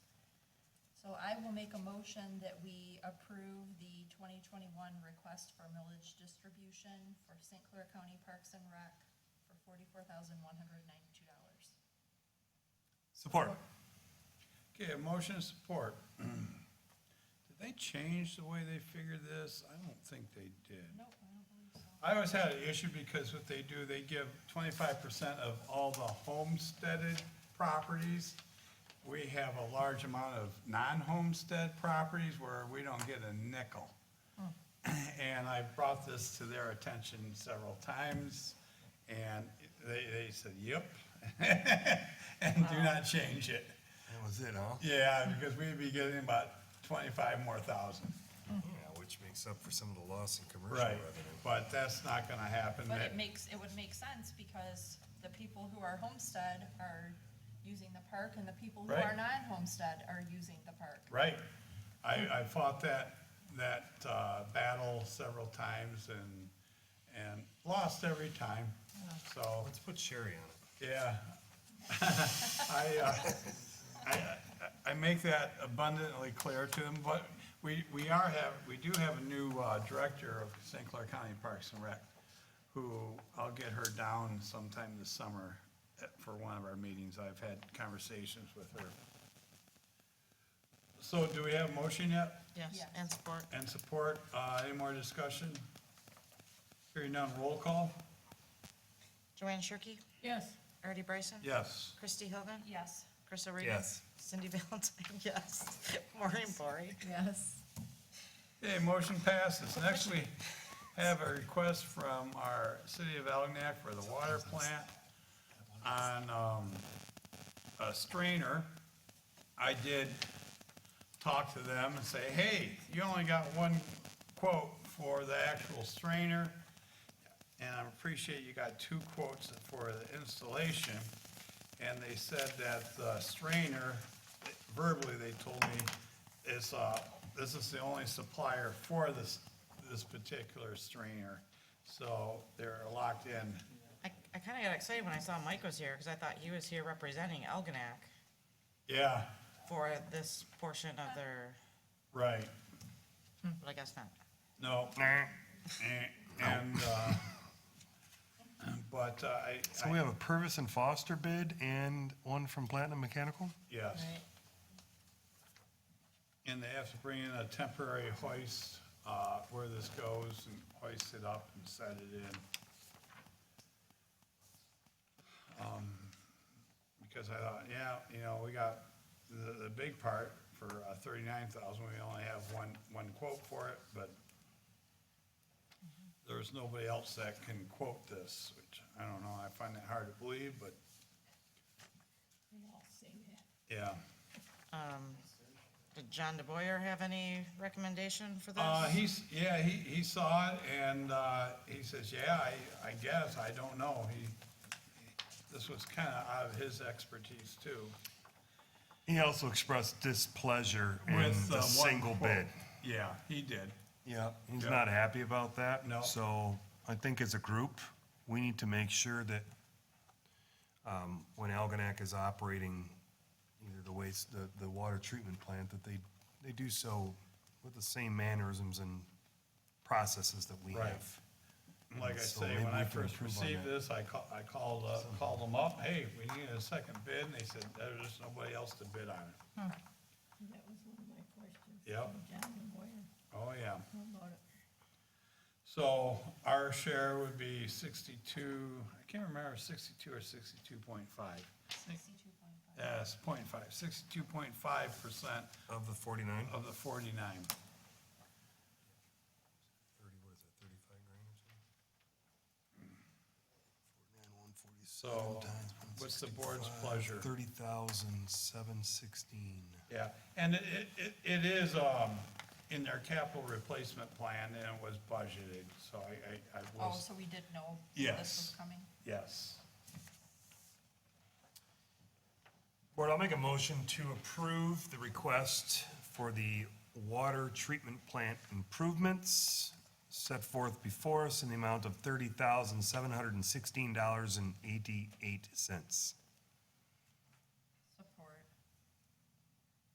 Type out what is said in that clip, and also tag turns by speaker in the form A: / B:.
A: So I will make a motion that we approve the twenty twenty-one request for millage distribution for St. Clair County Parks and Rec for forty-four thousand one hundred ninety-two dollars.
B: Support.
C: Okay, a motion of support. Did they change the way they figured this? I don't think they did.
A: No, I don't believe so.
C: I always had an issue because what they do, they give twenty-five percent of all the homesteaded properties. We have a large amount of non-homestead properties where we don't get a nickel. And I brought this to their attention several times, and they, they said, yep, and do not change it.
D: That was it, huh?
C: Yeah, because we'd be getting about twenty-five more thousand.
D: Yeah, which makes up for some of the loss in commercial
C: Right,
D: revenue.
C: but that's not gonna happen.
A: But it
C: That-
A: makes, it would make sense because the people who are homestead are using the park and the people who
C: Right.
A: are non-homestead are using the park.
C: Right. I, I fought that, that uh, battle several times and, and lost every time. So,
D: Let's put Sherry on it.
C: yeah. I, uh, I, I make that abundantly clear to them, but we, we are have, we do have a new uh, director of St. Clair County Parks and Rec, who I'll get her down sometime this summer uh, for one of our meetings. I've had conversations with her. So do we have a motion yet?
E: Yes,
A: Yes.
E: and support.
C: And support, uh, any more discussion? Hearing none, roll call?
E: Joanne Shirkey,
A: Yes.
E: Artie Bryson.
C: Yes.
E: Christie Hogan.
A: Yes.
E: Chris O'Regan.
D: Yes.
E: Cindy Valentine, yes. Maureen Bory.
A: Yes.
C: Okay, motion passes. Next, we have a request from our city of Algenack for the water plant on, um, a strainer. I did talk to them and say, hey, you only got one quote for the actual strainer. And I appreciate you got two quotes for the installation. And they said that the strainer, verbally, they told me, is, uh, this is the only supplier for this, this particular strainer. So they're locked in.
E: I, I kind of got excited when I saw Mike was here because I thought he was here representing Elginak
C: Yeah,
E: for this portion of their,
C: right.
A: Mm-hmm.
E: but I guess not.
C: No. And- And, uh, but uh, I,
D: So we
C: I,
D: have a Purvis and Foster bid and one from Platinum Mechanical?
C: yes. And they have to bring in a temporary hoist, uh, where this goes and hoist it up and set it in. Um, Because I thought, yeah, you know, we got the, the big part for uh, thirty-nine thousand, we only have one, one quote for it, but there's nobody else that can quote this, which I don't know, I find that hard to believe, but. Yeah.
E: Um, Did John DeBoyer have any recommendation for this?
C: Uh, he's, yeah, he, he saw it and, uh, he says, yeah, I, I guess, I don't know. He, this was kind of out of his expertise too.
D: He also expressed displeasure in
C: With, uh,
D: the
C: one
D: single
C: quote.
D: bid.
C: Yeah, he did.
D: Yeah, he's
C: Yeah.
D: not happy about that.
C: No.
D: So I think as a group, we need to make sure that um, when Algonac is operating either the waste, the, the water treatment plant, that they, they do so with the same mannerisms and processes that we
C: Right.
D: have.
C: Like I
D: So
C: say,
D: maybe
C: when I
D: we can
C: first
D: improve on
C: received
D: that.
C: this, I called, I called, uh, called them up, hey, we need a second bid, and they said, there's just nobody else to bid on it.
F: That was one of my questions.
C: Yep.
F: John and Moyer,
C: Oh, yeah.
F: how about it?
C: So our share would be sixty-two, I can't remember, sixty-two or sixty-two point five.
A: Sixty-two point five.
C: Yes, point five, sixty-two point five percent
D: Of the forty-nine?
C: of the forty-nine.
D: Thirty, what is that, thirty-five grand or something? Forty-nine, one
C: So, what's the board's pleasure?
D: Thirty thousand, seven sixteen.
C: Yeah, and it, it, it is, um, in their capital replacement plan and it was budgeted, so I, I, I
A: Oh,
C: was,
A: so we did know this
C: Yes.
A: was coming?
C: yes.
D: Board, I'll make a motion to approve the request for the water treatment plant improvements set forth before us in the amount of thirty thousand, seven hundred and sixteen dollars and eighty-eight cents.